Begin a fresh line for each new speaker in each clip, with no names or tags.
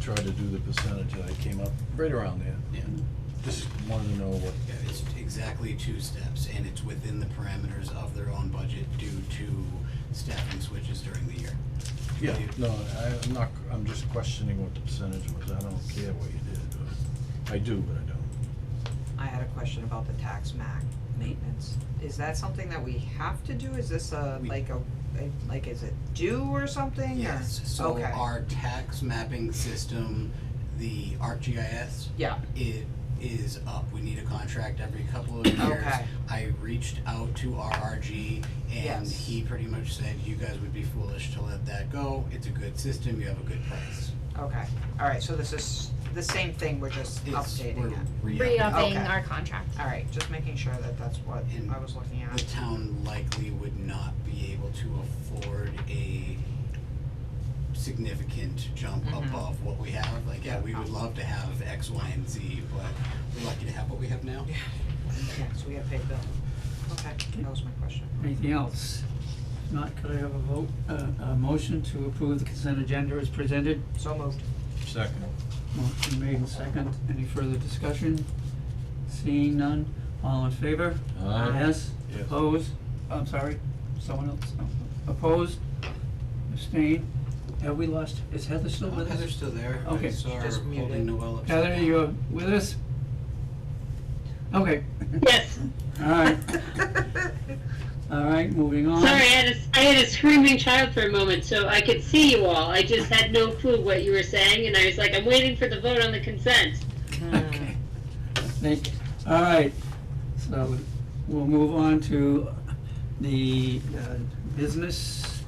tried to do the percentage, and I came up right around there.
Yeah.
Just wanted to know what,
Yeah, it's exactly two steps, and it's within the parameters of their own budget due to staffing switches during the year.
yeah, no, I- I'm not, I'm just questioning what the percentage was, I don't care what you did, but I do, but I don't.
I had a question about the tax mac maintenance. Is that something that we have to do? Is this a,
We-
like a, a- like, is it due or something or-
Yes, so
Okay.
our tax mapping system, the ArcGIS,
Yeah,
it is up. We need a contract every couple of years.
Okay.
I reached out to RRG and
Yes.
he pretty much said, you guys would be foolish to let that go. It's a good system, you have a good price.
okay. All right, so this is the same thing, we're just
It's-
updating it.
we're re-upping it.
Okay.
re-upping our contract.
All right, just making sure that that's what
And
I was looking
the
at.
town likely would not be able to afford a significant jump
Mhm.
above what we have. Like, yeah, we would love to have X, Y, and Z, but we're lucky to have what we have now.
Yeah, so we gotta pay the bill. Okay, that was my question.
Anything else? If Not, could I have a vote, uh, a motion to approve the consent agenda as presented?
So moved.
Second.
Motion made and second. Any further discussion? Seeing none, all in favor?
Aye.
Yes?
Yes.
Opposed? I'm sorry, someone else? No. Opposed? Abstained? Have we lost, is Heather still
Uh,
with us?
Heather's still there. I
Okay.
saw her
Just muted.
holding Noel upside
Heather,
down.
you're with us? Okay,
Yes.
all right, all right, moving on.
Sorry, I had, a, I had a screaming child for a moment, so I could see you all. I just had no clue what you were saying, and I was like, I'm waiting for the vote on the consent.
Okay. Thank you. All right, so we'll move on to the uh, business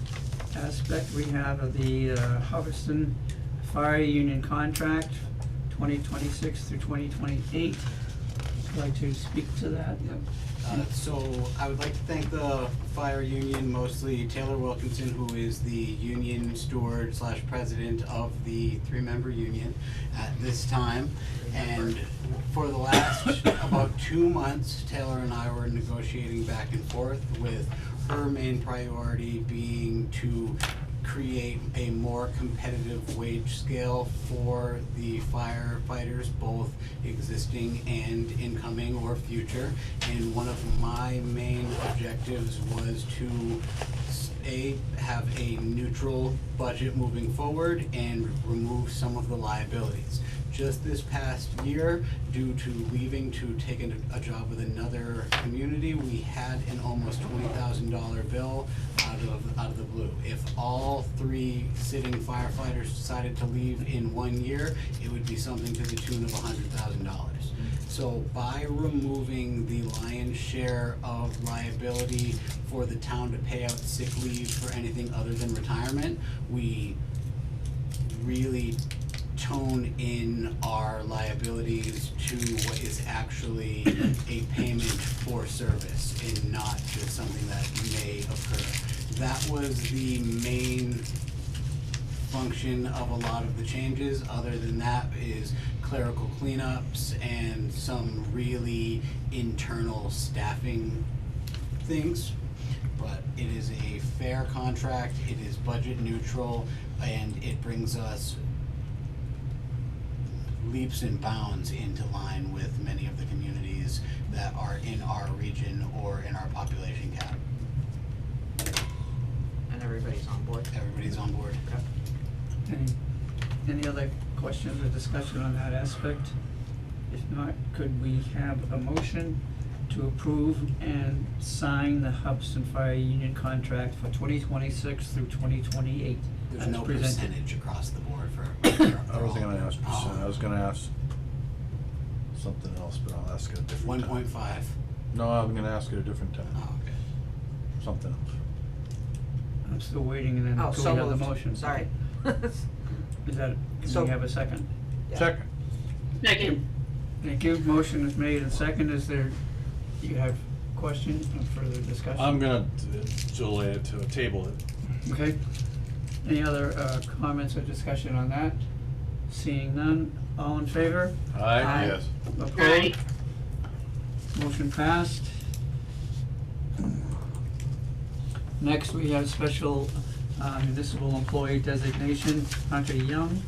aspect we have of the uh, Hubbardston Fire Union contract, twenty twenty-six through twenty twenty-eight. Like to speak to that? Yep.
Uh, so I would like to thank the fire union, mostly Taylor Wilkinson, who is the union steward slash president of the three-member union at this time. And for the last about two months, Taylor and I were negotiating back and forth with her main priority being to create a more competitive wage scale for the firefighters, both existing and incoming or future. And one of my main objectives was to, s- A, have a neutral budget moving forward and remove some of the liabilities just this past year, due to leaving to take an- a job with another community, we had an almost twenty thousand dollar bill out of, out of the blue. If all three sitting firefighters decided to leave in one year, it would be something to the tune of hundred thousand dollars. So by removing the lion's share of liability for the town to pay out sick leave for anything other than retirement, we really tone in our liabilities to what is actually a payment for service and not just something that may occur. That was the main function of a lot of the changes. Other than that is clerical cleanups and some really internal staffing things. But it is a fair contract, it is budget neutral, and it brings us leaps and bounds into line with many of the communities that are in our region or in our population cap.
And everybody's on board.
Everybody's on board.
Any, any other questions or discussion on that aspect? If not, could we have a motion to approve and sign the Hubbardston Fire Union contract for twenty twenty-six through twenty twenty-eight?
There's no percentage across the board for.
I wasn't gonna ask percent, I was gonna ask something else, but I'll ask it a different time.
Oh, One point five.
No, I'm gonna ask it a different time,
Oh, okay.
something else.
I'm still waiting and then
Oh,
could we
so
have the
moved.
motion?
Sorry.
Is that, can
So-
we have a second?
Yeah.
Second.
Second.
Thank you, motion is made and second, is there, you have questions or further discussion?
I'm gonna uh, delay it to table it.
Okay, any other, uh, comments or discussion on that? Seeing none, all in favor?
Aye.
Yes.
Aye.
Opposed? Motion passed. Next, we have special uh, municipal employee designation, Hunter Young.